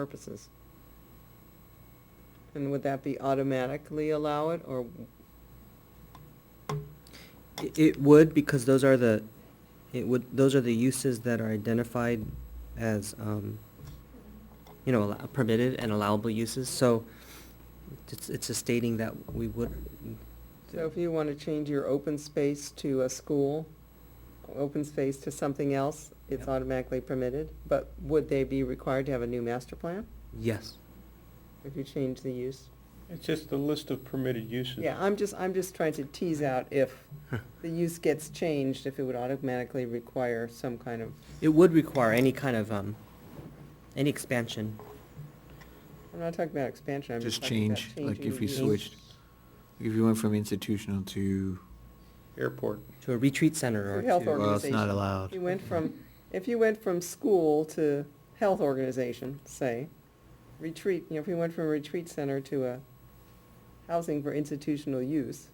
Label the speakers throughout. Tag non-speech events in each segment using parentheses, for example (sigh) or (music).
Speaker 1: purposes. And would that be automatically allow it, or,
Speaker 2: I- It would, because those are the, it would, those are the uses that are identified as, um, you know, allo- permitted and allowable uses, so it's, it's just stating that we would.
Speaker 1: so if you want to change your open space to a school, open space to something else, it's
Speaker 2: Yep.
Speaker 1: automatically permitted, but would they be required to have a new master plan
Speaker 2: Yes.
Speaker 1: if you change the use?
Speaker 3: It's just a list of permitted uses.
Speaker 1: Yeah, I'm just, I'm just trying to tease out if the use gets changed, if it would automatically require some kind of,
Speaker 2: It would require any kind of, um, any expansion.
Speaker 1: I'm not talking about expansion, I'm just
Speaker 4: Just
Speaker 1: talking about
Speaker 4: change,
Speaker 1: changing the use.
Speaker 4: like if you switched, if you went from institutional to,
Speaker 3: Airport.
Speaker 2: to a retreat center
Speaker 1: To
Speaker 2: or
Speaker 1: health
Speaker 2: to,
Speaker 1: organ-
Speaker 4: well, it's not
Speaker 1: Organization.
Speaker 4: allowed.
Speaker 1: You went from, if you went from school to health organization, say, retreat, you know, if you went from a retreat center to a housing for institutional use,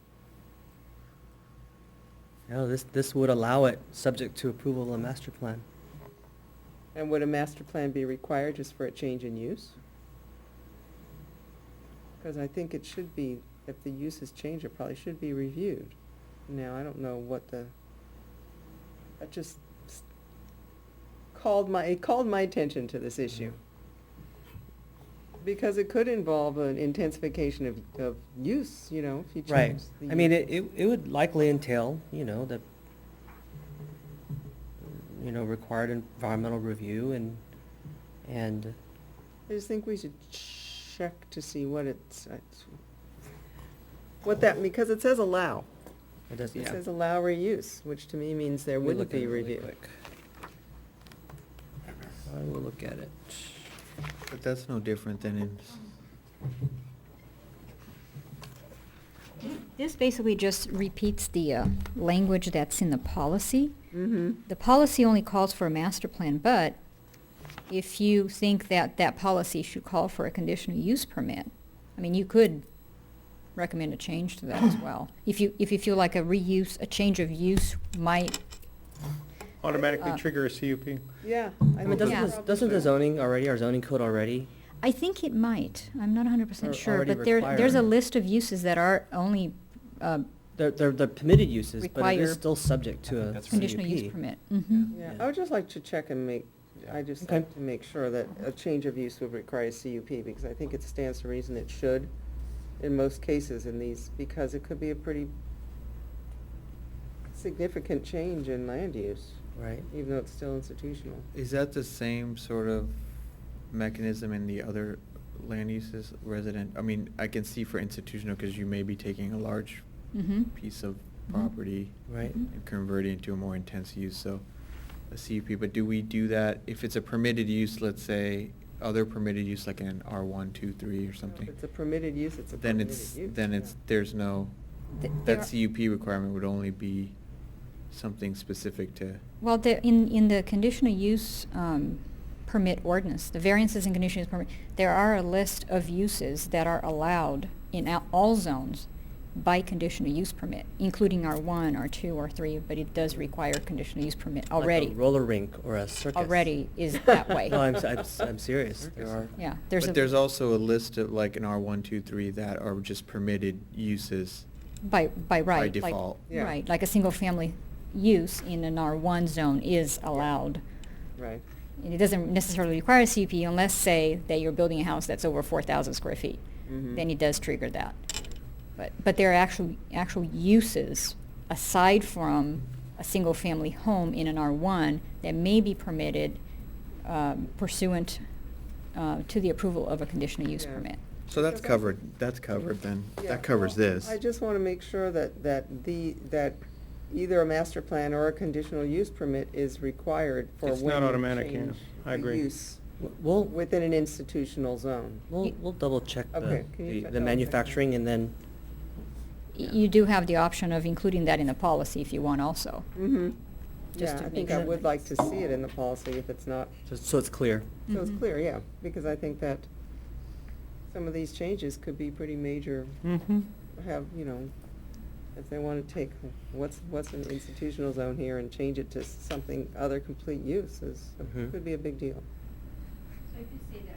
Speaker 2: no, this, this would allow it, subject to approval of the master plan.
Speaker 1: and would a master plan be required just for a change in use? Because I think it should be, if the use has changed, it probably should be reviewed. Now, I don't know what the, that just s- called my, it called my attention to this issue. Because it could involve an intensification of, of use, you know, if you
Speaker 2: Right,
Speaker 1: change the.
Speaker 2: I mean,
Speaker 1: use.
Speaker 2: it, it it would likely entail, you know, the, you know, required environmental review and, and,
Speaker 1: I just think we should check to see what it's, it's- what that, because it says allow.
Speaker 2: it does,
Speaker 1: It
Speaker 2: yeah.
Speaker 1: says allow reuse, which to me means there
Speaker 2: Let me
Speaker 1: wouldn't
Speaker 2: look at
Speaker 1: be
Speaker 2: it really
Speaker 1: review.
Speaker 2: quick. I will look at it.
Speaker 4: But that's no different than in,
Speaker 5: This basically just repeats the uh, language that's in the policy.
Speaker 1: Mm-hmm.
Speaker 5: The policy only calls for a master plan, but if you think that that policy should call for a conditional use permit, I mean, you could recommend a change to that as well. If you, if you feel like a reuse, a change of use might,
Speaker 3: Automatically
Speaker 5: Uh,
Speaker 3: trigger a CUP.
Speaker 1: Yeah.
Speaker 2: I
Speaker 1: think
Speaker 2: mean, doesn't,
Speaker 5: Yeah.
Speaker 1: that's
Speaker 2: this-
Speaker 1: probably
Speaker 2: doesn't the
Speaker 1: fair.
Speaker 2: zoning already, our zoning code already,
Speaker 5: I think it might, I'm not hundred
Speaker 2: Or
Speaker 5: percent sure,
Speaker 2: already
Speaker 5: but there, there's a
Speaker 2: required.
Speaker 5: list of uses that are only, uh,
Speaker 2: they're, they're, they're permitted uses, but it is
Speaker 5: Require-
Speaker 2: still subject
Speaker 4: I
Speaker 2: to
Speaker 4: think
Speaker 2: a
Speaker 4: that's right.
Speaker 5: conditional use
Speaker 2: CUP.
Speaker 5: permit. Mhm.
Speaker 1: Yeah,
Speaker 2: E Yeah.
Speaker 1: I would just like to check and make, I just like
Speaker 2: Okay.
Speaker 1: to make sure that a change of use would require a CUP, because I think it stands to reason it should in most cases in these, because it could be a pretty significant change in land use,
Speaker 2: Right,
Speaker 1: even though it's still institutional.
Speaker 4: is that the same sort of mechanism in the other land uses resident? I mean, I can see for institutional, because you may be taking a large
Speaker 5: Mhm.
Speaker 4: piece of
Speaker 1: Mm-hmm.
Speaker 5: Mhm.
Speaker 4: property
Speaker 2: right.
Speaker 5: Mhm.
Speaker 4: and converting it to a more intense use, so a CUP, but do we do that if it's a permitted use, let's say, other permitted use like in R one, two, three or something?
Speaker 1: If it's a permitted use, it's a
Speaker 4: Then
Speaker 1: permitted
Speaker 4: it's,
Speaker 1: use.
Speaker 4: then it's,
Speaker 1: yeah.
Speaker 4: there's no,
Speaker 5: Th- there-
Speaker 4: that CUP requirement would only be something specific to,
Speaker 5: Well, the, in, in the conditional use um, permit ordinance, the variances in conditional use permit, there are a list of uses that are allowed in a- all zones by conditional use permit, including R1, R2, R3, but it does require conditional use permit
Speaker 2: Like a
Speaker 5: already.
Speaker 2: roller rink or a circus.
Speaker 5: Already
Speaker 2: (laughs)
Speaker 5: is that way.
Speaker 2: No, I'm, s- I'm, s- I'm serious, there
Speaker 4: Circus.
Speaker 2: are.
Speaker 5: Yeah, there's a.
Speaker 4: but there's also a list of like an R one, two, three that are just permitted uses.
Speaker 5: By, by
Speaker 4: by
Speaker 5: right. like-
Speaker 4: default.
Speaker 1: Yeah.
Speaker 5: Right, like a single-family use in an R1 zone is allowed.
Speaker 1: Right.
Speaker 5: And it doesn't necessarily require a CUP unless, say, that you're building a house that's over 4,000 square feet.
Speaker 4: Mm-hmm.
Speaker 1: Mhm.
Speaker 5: then it does trigger that. But, but there are actual, actual uses aside from a single-family home in an R1 that may be permitted um, pursuant uh, to the approval of a conditional use
Speaker 1: Yeah.
Speaker 5: permit.
Speaker 4: So that's
Speaker 1: Because I-
Speaker 4: covered, that's covered then,
Speaker 1: Yeah,
Speaker 4: that covers
Speaker 1: well,
Speaker 4: this.
Speaker 1: I just want to make sure that, that the, that either a master plan or a conditional use permit is required for
Speaker 3: It's
Speaker 1: when
Speaker 3: not
Speaker 1: you
Speaker 3: automatic, yeah.
Speaker 1: change
Speaker 3: I
Speaker 1: the
Speaker 3: agree.
Speaker 1: use
Speaker 2: W- We'll,
Speaker 1: within an institutional zone.
Speaker 2: We'll,
Speaker 5: You-
Speaker 2: we'll double check the,
Speaker 1: Okay, can you
Speaker 2: the-
Speaker 1: check double check
Speaker 2: the
Speaker 1: that?
Speaker 2: manufacturing and then,
Speaker 5: Y- You do have the option of including that in the policy if you want also.
Speaker 1: Mm-hmm.
Speaker 5: Just
Speaker 1: Yeah,
Speaker 5: to
Speaker 1: I
Speaker 5: make
Speaker 1: think I
Speaker 5: sure.
Speaker 1: would like to see it in the policy if it's not,
Speaker 2: so- so it's clear.
Speaker 1: so it's
Speaker 5: Mhm.
Speaker 1: clear, yeah, because I think that some of these changes could be pretty major,
Speaker 3: Mm-hmm.
Speaker 1: have, you know, if they want to take what's, what's an institutional zone here and change it to something other complete use is,
Speaker 2: Mhm.
Speaker 1: could be a big deal.
Speaker 6: So I could say that